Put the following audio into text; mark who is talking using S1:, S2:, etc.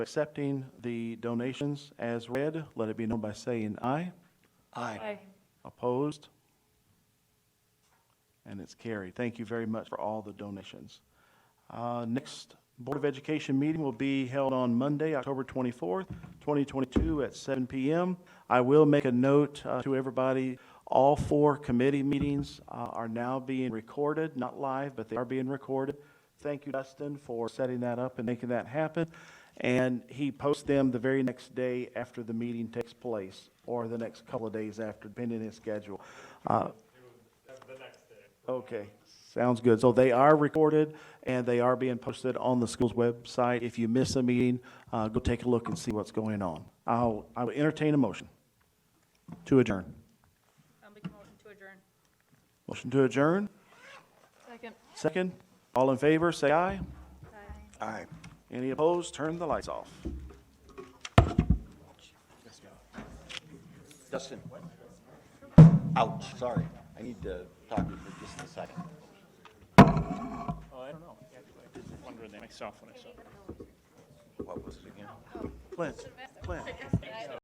S1: accepting the donations as read, let it be known by saying aye.
S2: Aye.
S1: Opposed? And it's carried. Thank you very much for all the donations. Uh, Next Board of Education meeting will be held on Monday, October 24th, 2022, at 7 PM. I will make a note uh, to everybody, all four committee meetings uh, are now being recorded, not live, but they are being recorded. Thank you, Dustin, for setting that up and making that happen. And he posts them the very next day after the meeting takes place, or the next couple of days after, depending on his schedule. Uh, Okay, sounds good. So they are recorded and they are being posted on the school's website. If you miss a meeting, uh, go take a look and see what's going on. I'll, I will entertain a motion to adjourn.
S2: I'll make a motion to adjourn.
S1: Motion to adjourn,
S2: Second.
S1: second. All in favor, say aye.
S2: Aye.
S3: Aye.
S1: Any opposed, turn the lights off.
S3: Dustin. Ouch, sorry. I need to talk to you for just a second.
S4: Oh, I don't know. I was wondering that myself when I saw it.
S3: What was it again?
S1: Clint, Clint.